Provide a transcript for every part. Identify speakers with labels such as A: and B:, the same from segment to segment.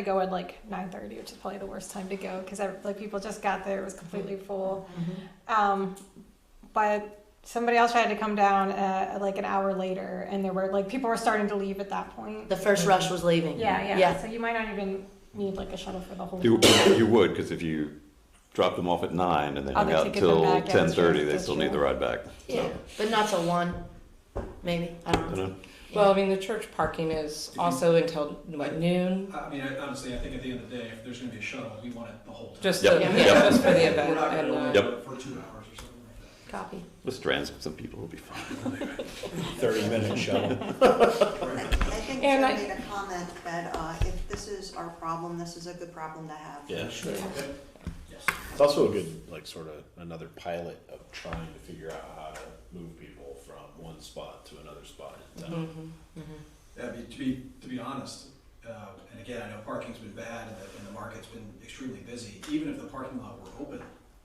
A: I go at like nine thirty, which is probably the worst time to go because like people just got there; it was completely full. Um, but somebody else tried to come down uh, like an hour later, and there were like people were starting to leave at that point.
B: The first rush was leaving.
A: Yeah, yeah.
B: Yeah.
A: So you might not even need like a shuttle for the whole.
C: You,
A: thing.
C: you would, because if you drop them off at nine and then
A: Oh,
C: hang
A: they
C: out
A: could get them
C: till
A: back, yeah,
C: ten
A: that's true,
C: thirty, they
A: that's
C: still
A: true.
C: need the ride back.
B: Yeah,
C: So,
B: but not till one, maybe, I
C: I
B: don't know.
C: don't know.
D: Well, I mean, the church parking is also until what noon,
E: I mean, I- honestly, I think at the end of the day, if there's gonna be a shuttle, we want it the whole time.
D: just,
C: Yep.
D: the-
B: Yep.
D: yeah, just for the
E: We're
D: event.
E: not gonna
D: and,
E: only
D: uh,
E: do it for two hours or something like that.
B: Copy.
C: Just transit some people will be fine.
F: 30-minute shuttle.
G: I think
D: And I-
G: Joe made a comment that uh, if this is our problem, this is a good problem to have.
F: Yeah, sure.
E: Yes.
F: It's also a good, like, sort of another pilot of trying to figure out how to move people from one spot to another spot in town.
D: mhm, mhm.
E: I mean, to be, to be honest, uh, and again, I know parking's been bad and the, and the market's been extremely busy, even if the parking lot were open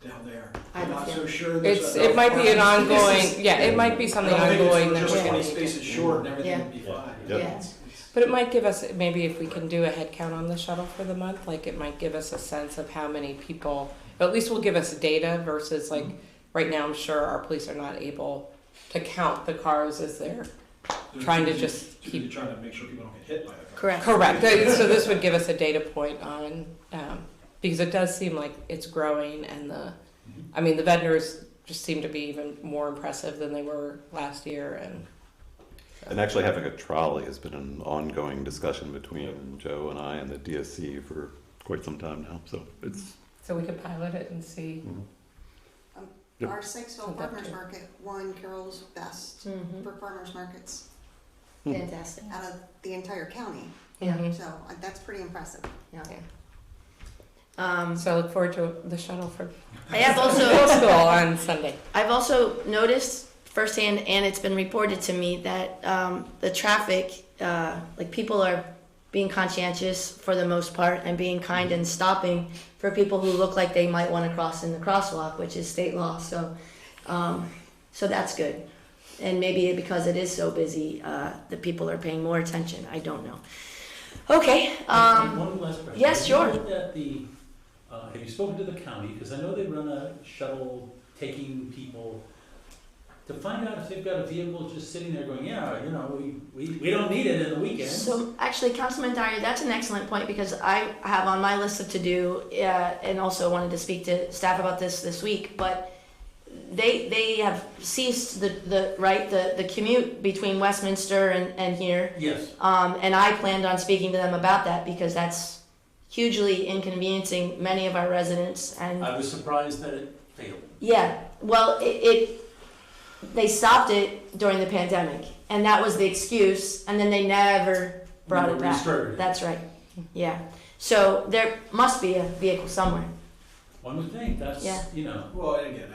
E: down there,
B: I
E: I'm not
B: feel-
E: so sure there's.
D: It's,
E: enough
D: it might be an
E: parking spaces.
D: ongoing, yeah, it might be
E: I
D: something
E: don't think
D: ongoing
E: it's
D: that
E: just twenty
D: we're
E: spaces short and everything
B: Yeah.
E: would be
F: Yeah.
E: fine.
B: Yeah.
F: Yeah.
E: It's- it's-
D: But it might give us, maybe if we can do a head count on the shuttle for the month, like it might give us a sense of how many people, at least will give us data versus like,
E: Mm-hmm.
D: right now, I'm sure our police are not able to count the cars as they're
E: they're
D: trying to
E: busy-
D: just
E: they're
D: keep-
E: Trying to make sure people don't get hit by the car.
B: Correct.
D: Correct. So this would give us a data point on, um, because it does seem like it's growing and the, I mean, the vendors just seem to be even more impressive than they were last year and.
C: And actually having a trolley has been an ongoing discussion between Joe and I and the DSC for quite some time now, so it's,
D: So we could pilot it and see.
C: Yep.
G: Our Sykesville
D: Put that
G: Farmers
D: too.
G: Market won Carroll's best
D: Mm-hmm.
G: for farmers markets
B: Fantastic.
G: out of the entire county,
B: Yeah.
D: Mhm.
G: so uh, that's pretty impressive.
B: Um,
D: So I look forward to the shuttle for
B: I have also,
D: middle school on Sunday.
B: I've also noticed firsthand, and it's been reported to me, that, um, the traffic, uh, like, people are being conscientious for the most part and being kind and stopping for people who look like they might wanna cross in the crosswalk, which is state law, so, um, so that's good. And maybe because it is so busy, uh, the people are paying more attention, I don't know. Okay, um,
H: One last question.
B: yes,
H: Have
B: sure.
H: you looked at the, uh, have you spoken to the county, because I know they run a shuttle taking people, to find out if they've got a vehicle just sitting there going, yeah, you know, we, we, we don't need it in the weekends.
B: So actually, Councilman Dyer, that's an excellent point because I have on my list of to do, uh, and also wanted to speak to staff about this this week, but they, they have ceased the, the, right, the, the commute between Westminster and, and here.
H: Yes,
B: Um, and I planned on speaking to them about that because that's hugely inconveniencing many of our residents and.
H: I was surprised that it failed.
B: Yeah, well, it, it they stopped it during the pandemic, and that was the excuse, and then they never brought
H: Never
B: it back.
H: restarted it.
B: That's right. Yeah. So there must be a vehicle somewhere.
H: One would think,
B: Yeah.
H: that's, you know,
E: Well, and again,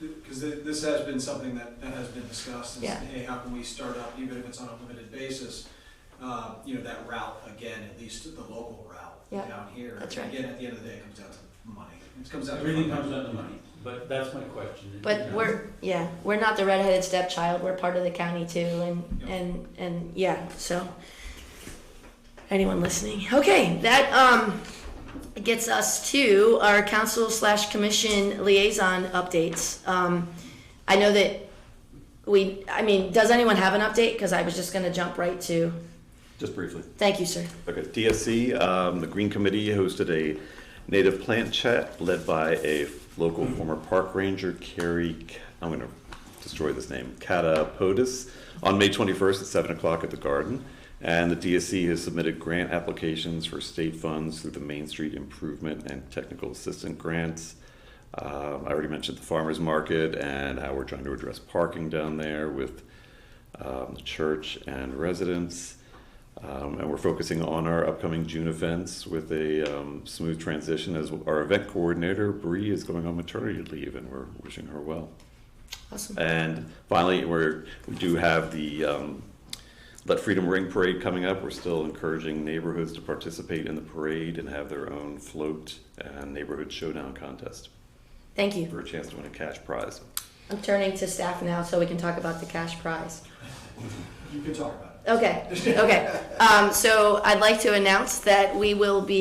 E: because this has been something that, that has been discussed, and,
B: Yeah.
E: hey, how can we start up, even if it's on a limited basis, uh, you know, that route, again, at least the local
B: Yeah,
E: route down here.
B: that's right.
E: Again, at the end of the day, it comes down to money. It comes down to.
H: everything comes down to money, but that's my question.
B: But we're yeah, we're not the redheaded stepchild. We're part of the county too, and
E: Yeah.
B: and and yeah. So anyone listening? Okay, that um gets us to our council slash commission liaison updates. Um, I know that we. I mean, does anyone have an update? Because I was just gonna jump right to.
C: just briefly.
B: Thank you, sir.
C: Okay, DSC, um, the Green Committee hosted a native plant chat led by a local former park ranger, Carrie, K- I'm gonna destroy this name, Catapodis, on May twenty-first at seven o'clock at the Garden. And the DSC has submitted grant applications for state funds through the Main Street Improvement and Technical Assistance Grants. Um, I already mentioned the farmer's market and how we're trying to address parking down there with um, the church and residents. Um, and we're focusing on our upcoming June events with a um, smooth transition as our event coordinator, Bree, is going on maternity leave and we're wishing her well.
B: Awesome.
C: And finally, we're, we do have the um, Let Freedom Ring Parade coming up. We're still encouraging neighborhoods to participate in the parade and have their own float and neighborhood showdown contest
B: Thank you.
C: for a chance to win a cash prize.
B: I'm turning to staff now, so we can talk about the cash prize.
E: You can talk about it.
B: Okay, okay. Um, so I'd like to announce that we will be